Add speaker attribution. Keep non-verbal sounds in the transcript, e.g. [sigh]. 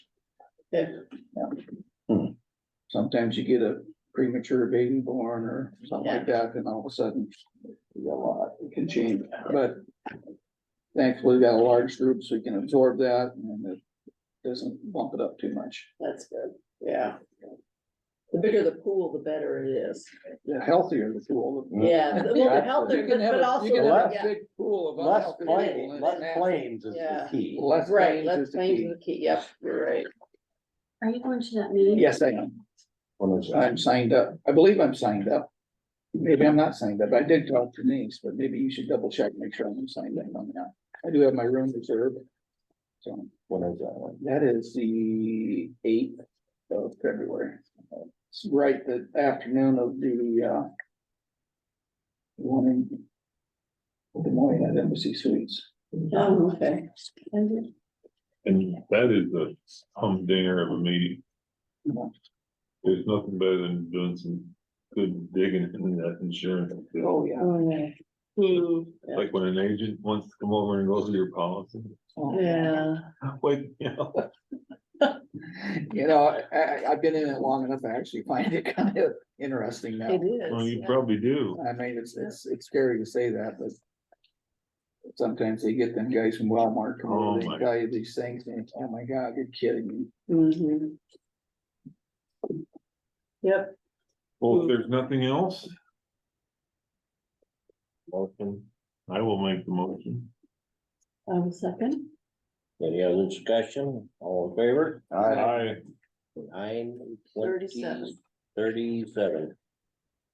Speaker 1: Hmm. Sometimes you get a premature baby born or something like that, and all of a sudden, you got a lot, it can change, but. Thankfully, we got a large group, so we can absorb that, and it doesn't bump it up too much.
Speaker 2: That's good, yeah. The bigger the pool, the better it is.
Speaker 1: The healthier the pool. the-
Speaker 2: Yeah, well, the healthier,
Speaker 1: You can have,
Speaker 2: but
Speaker 1: a- you
Speaker 2: also,
Speaker 1: can have a
Speaker 2: yeah,
Speaker 1: big pool of
Speaker 3: Less
Speaker 1: unhealthy people.
Speaker 3: claims,
Speaker 1: and
Speaker 3: less
Speaker 1: that's-
Speaker 3: claims is the
Speaker 2: Yeah.
Speaker 3: key.
Speaker 1: Less
Speaker 2: right,
Speaker 1: claims is
Speaker 2: let's
Speaker 1: the
Speaker 2: change
Speaker 1: key.
Speaker 2: the key, yep, you're right.
Speaker 4: Are you going to that meeting?
Speaker 1: Yes, I am.
Speaker 3: One of those-
Speaker 1: I'm signed up. I believe I'm signed up. Maybe I'm not signed up. I did talk to Denise, but maybe you should double check, make sure I'm signed up on that. I do have my room reserved. So
Speaker 3: one of those.
Speaker 1: that is the eighth of February. It's right the afternoon of the uh. One in. Good morning at Embassy Suites.
Speaker 2: Oh, okay.
Speaker 5: And that is a humdinger of a meeting. There's nothing better than doing some good digging in that insurance.
Speaker 1: Oh, yeah.
Speaker 2: hmm,
Speaker 5: Like when an agent wants to come over and go through your policy, [laughs]
Speaker 2: Yeah,
Speaker 5: wait, you know,
Speaker 1: You know, I, I, I've been in it long enough, I actually find it [laughs] kind of interesting now.
Speaker 5: well,
Speaker 2: it
Speaker 5: you
Speaker 2: is.
Speaker 5: probably do.
Speaker 1: I mean, it's, it's, it's scary to say that, but. Sometimes they get them guys from Walmart, come
Speaker 5: Oh,
Speaker 1: over, they
Speaker 5: my.
Speaker 1: tell you these things, and it's, oh my God, you're kidding me.
Speaker 2: Mhm. Yep,
Speaker 5: Well, if there's nothing else. Motion, I will make the motion.
Speaker 2: um, second,
Speaker 3: Any other discussion? All in favor?
Speaker 1: Aye.
Speaker 5: I,
Speaker 3: Nine,
Speaker 2: Thirty-seven.
Speaker 3: twenty, thirty-seven.